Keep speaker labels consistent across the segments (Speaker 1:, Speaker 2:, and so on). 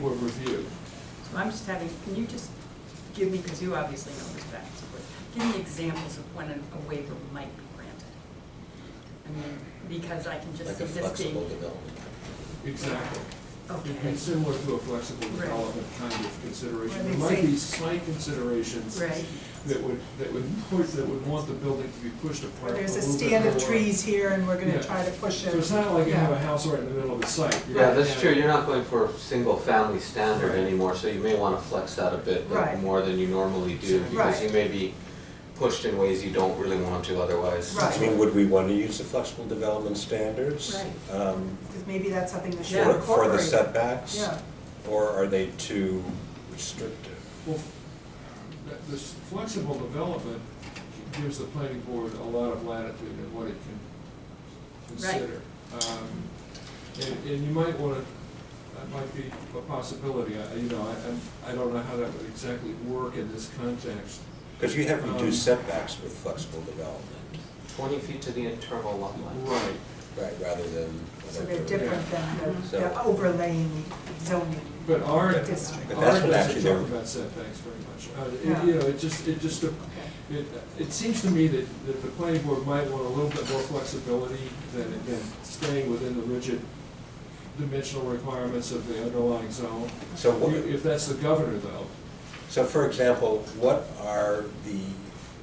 Speaker 1: for review.
Speaker 2: So I'm just having, can you just give me, because you obviously know this back and forth, give me examples of when an- a waiver might be granted? I mean, because I can just
Speaker 3: Like
Speaker 2: see
Speaker 3: a
Speaker 2: this
Speaker 3: flexible
Speaker 2: being,
Speaker 3: development.
Speaker 1: Exactly. It'd
Speaker 2: okay,
Speaker 1: be similar to a flexible
Speaker 2: Right.
Speaker 1: development kind of consideration.
Speaker 2: Well,
Speaker 1: There
Speaker 2: they
Speaker 1: might be
Speaker 2: say-
Speaker 1: slight considerations
Speaker 2: right,
Speaker 1: that would, that would push, that would want the building to be pushed
Speaker 4: Or
Speaker 1: apart a
Speaker 4: there's a
Speaker 1: little bit
Speaker 4: stand of
Speaker 1: more.
Speaker 4: trees here and we're
Speaker 1: Yeah.
Speaker 4: gonna try to push
Speaker 1: So
Speaker 4: it.
Speaker 1: it's not like you
Speaker 4: Yeah.
Speaker 1: have a house right in the middle of the site. You're
Speaker 3: Yeah,
Speaker 1: gonna
Speaker 3: that's
Speaker 1: have-
Speaker 3: true, you're not going for a single-family standard
Speaker 1: Right.
Speaker 3: anymore, so you may wanna flex that a bit
Speaker 4: Right.
Speaker 3: more than you normally do, because
Speaker 4: Right.
Speaker 3: you may be pushed in ways you don't really want to otherwise.
Speaker 4: Right.
Speaker 5: So would we want to use the flexible development standards?
Speaker 2: Right.
Speaker 5: um,
Speaker 4: Because maybe that's something that should
Speaker 2: Yeah.
Speaker 5: For, for the
Speaker 4: incorporate.
Speaker 5: setbacks?
Speaker 4: Yeah.
Speaker 5: Or are they too restrictive?
Speaker 1: Well, that- This flexible development gives the planning board a lot of latitude in what it can consider. Um, And, and you might wanna, that might be a possibility, I, you know, I, I'm- I don't know how that would exactly work in this context.
Speaker 5: Because you have
Speaker 1: Um,
Speaker 5: reduced setbacks with flexible development,
Speaker 3: Twenty feet to the internal lot line.
Speaker 1: Right,
Speaker 5: right, rather than.
Speaker 4: So they're different than the- the
Speaker 5: So-
Speaker 4: overlaying zoning.
Speaker 1: but our, our
Speaker 4: District.
Speaker 5: But that's what
Speaker 1: doesn't
Speaker 5: actually
Speaker 1: talk
Speaker 5: they're-
Speaker 1: about setbacks very much. Uh, it-
Speaker 4: Yeah.
Speaker 1: You know, it just, it just,
Speaker 4: Okay.
Speaker 1: It, it seems to me that, that the planning board might want a little bit more flexibility than, than staying within the rigid dimensional requirements of the underlying zone.
Speaker 5: So what-
Speaker 1: If that's the governor though,
Speaker 5: So for example, what are the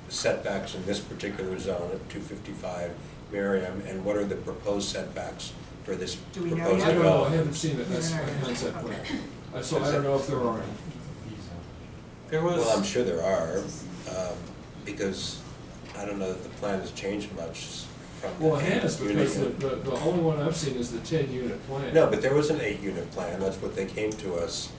Speaker 5: setbacks in this particular zone at two fifty-five Merriam? And what are the proposed setbacks for this
Speaker 4: Do we know
Speaker 5: proposed
Speaker 3: Oh,
Speaker 4: yet?
Speaker 1: I don't know, I haven't
Speaker 5: development?
Speaker 1: seen it, that's a concept plan. Uh, So I don't know if there are any.
Speaker 3: There
Speaker 5: Well, I'm
Speaker 3: was,
Speaker 5: sure there are, um, because I don't know that the plan has changed much from. the
Speaker 1: Well, Hannah's, because the,
Speaker 5: unit.
Speaker 1: the, the only one I've seen is the ten unit plan.
Speaker 5: No, but there was an eight-unit plan, that's what they came to us.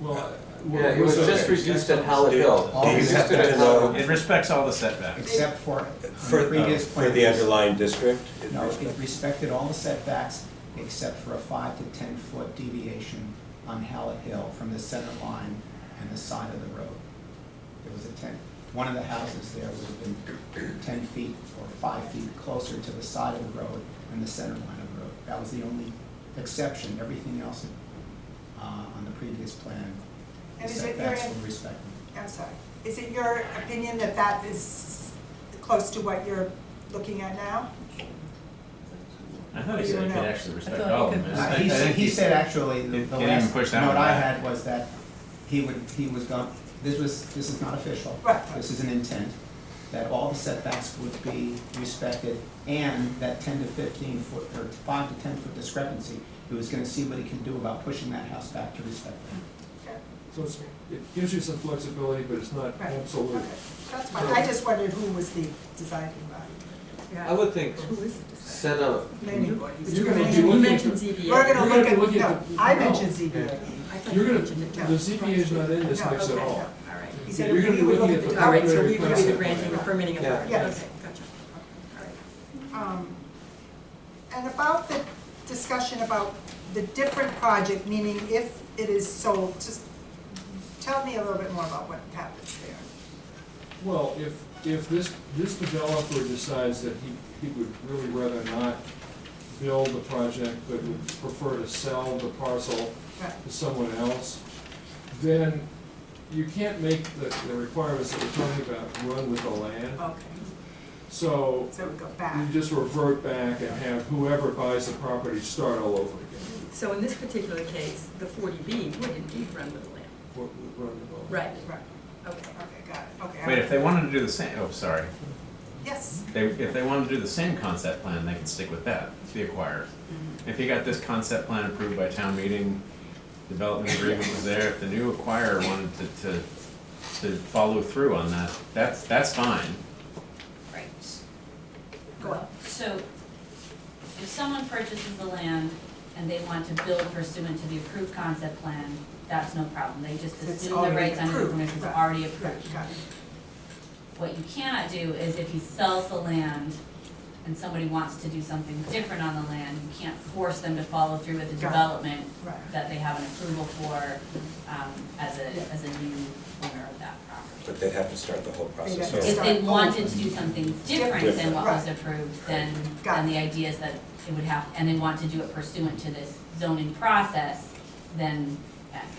Speaker 1: Well, I- well,
Speaker 3: yeah, it was
Speaker 1: okay.
Speaker 3: just reduced at
Speaker 5: Do
Speaker 3: Hallett
Speaker 5: do you
Speaker 3: Hill.
Speaker 5: happen
Speaker 3: Reduced it
Speaker 5: to
Speaker 3: at Hallett
Speaker 5: know,
Speaker 6: It respects all the setbacks.
Speaker 7: Except for, on
Speaker 5: for,
Speaker 7: the
Speaker 5: uh,
Speaker 7: previous
Speaker 5: for
Speaker 7: plan.
Speaker 5: the underlying district? it
Speaker 7: No,
Speaker 5: respects-
Speaker 7: it respected all the setbacks except for a five to ten foot deviation on Hallett Hill from the center line and the side of the road. There was a ten, one of the houses there would have been ten feet or five feet closer to the side of the road and the center line of the road. That was the only exception, everything else uh, on the previous plan,
Speaker 4: And is it your,
Speaker 7: setbacks were respected.
Speaker 4: I'm sorry, is it your opinion that that is close to what you're looking at now?
Speaker 6: I thought he said it could actually respect
Speaker 8: thought
Speaker 6: all
Speaker 8: it
Speaker 6: of them.
Speaker 8: could-
Speaker 6: I
Speaker 7: Uh,
Speaker 6: think-
Speaker 7: He
Speaker 6: I
Speaker 7: said,
Speaker 6: think
Speaker 7: he said actually, the
Speaker 6: It
Speaker 7: the
Speaker 6: can't even
Speaker 7: last
Speaker 6: push
Speaker 7: note
Speaker 6: down on
Speaker 7: I
Speaker 6: that.
Speaker 7: had was that he would, he was going, this was, this is not official.
Speaker 4: Right.
Speaker 7: This is an intent, that all the setbacks would be respected, and that ten to fifteen foot, or five to ten foot discrepancy, he was gonna see what he can do about pushing that house back to respect that.
Speaker 4: Okay,
Speaker 1: So it's, it gives you some flexibility, but it's not
Speaker 4: Right.
Speaker 1: absolute.
Speaker 4: okay, That's fine, I just wondered who was the deciding body.
Speaker 2: yeah.
Speaker 3: I would think,
Speaker 2: Who is it?
Speaker 3: set up,
Speaker 4: Planning board.
Speaker 1: You're gonna
Speaker 4: Planning
Speaker 1: do
Speaker 4: board.
Speaker 2: You
Speaker 1: looking
Speaker 2: mentioned
Speaker 1: for-
Speaker 2: ZBA.
Speaker 4: We're gonna
Speaker 1: You're
Speaker 4: look
Speaker 1: gonna
Speaker 4: at,
Speaker 1: look
Speaker 4: no,
Speaker 1: at the-
Speaker 4: I
Speaker 1: no.
Speaker 4: mentioned E. ZBA.
Speaker 2: I thought you
Speaker 1: You're gonna,
Speaker 2: mentioned it,
Speaker 1: the
Speaker 2: no.
Speaker 1: ZBA is not in this
Speaker 4: No,
Speaker 1: mix at
Speaker 4: okay,
Speaker 1: all.
Speaker 4: no.
Speaker 2: All right.
Speaker 4: He said
Speaker 1: You're
Speaker 4: we
Speaker 1: gonna be
Speaker 4: would
Speaker 1: looking
Speaker 4: look
Speaker 1: at
Speaker 4: at
Speaker 1: the
Speaker 4: the
Speaker 2: All right, so
Speaker 1: preliminary
Speaker 2: we would do the
Speaker 1: concept
Speaker 2: granting or
Speaker 1: plan.
Speaker 2: permitting
Speaker 3: Yeah.
Speaker 2: authority,
Speaker 4: Yes.
Speaker 2: okay, gotcha, okay, all right.
Speaker 4: Um, And about the discussion about the different project, meaning if it is sold, just tell me a little bit more about what happens there.
Speaker 1: Well, if, if this, this developer decides that he, he would really rather not build the project, but would prefer to sell the parcel
Speaker 4: Right.
Speaker 1: to someone else, then you can't make the, the requirements that we're talking about run with the land.
Speaker 4: Okay,
Speaker 1: So
Speaker 4: so we go
Speaker 1: you
Speaker 4: back.
Speaker 1: just revert back and have whoever buys the property start all over again.
Speaker 2: So in this particular case, the forty B would indeed run with the land.
Speaker 1: Run the-
Speaker 2: Right,
Speaker 4: Right,
Speaker 2: okay.
Speaker 4: okay, got it, okay.
Speaker 6: Wait, if they wanted to do the same, oh, sorry.
Speaker 4: Yes,
Speaker 6: They, if they wanted to do the same concept plan, they could stick with that, the acquirer. If you got this concept plan approved by town meeting, development agreement was there, if the new acquirer wanted to, to, to follow through on that, that's, that's fine.
Speaker 8: Right.
Speaker 4: go on.
Speaker 8: So if someone purchases the land and they want to build pursuant to the approved concept plan, that's no problem. They just
Speaker 4: It's
Speaker 8: assume the
Speaker 4: already
Speaker 8: rights under the
Speaker 4: approved,
Speaker 8: permission is
Speaker 4: right,
Speaker 8: already
Speaker 4: Right,
Speaker 8: approved.
Speaker 4: got it.
Speaker 8: What you cannot do is if he sells the land and somebody wants to do something different on the land, you can't force them to follow through with the
Speaker 4: Got it.
Speaker 8: development
Speaker 4: Right.
Speaker 8: that they have an approval for, um, as a, as a new owner of that property.
Speaker 5: But they'd have to start the whole process
Speaker 4: have to
Speaker 5: over.
Speaker 8: If they wanted to do something different than what was
Speaker 4: Different.
Speaker 8: approved, then,
Speaker 4: Got
Speaker 8: then
Speaker 4: it.
Speaker 8: the idea is that it would have, and they want to do it pursuant to this zoning process, then that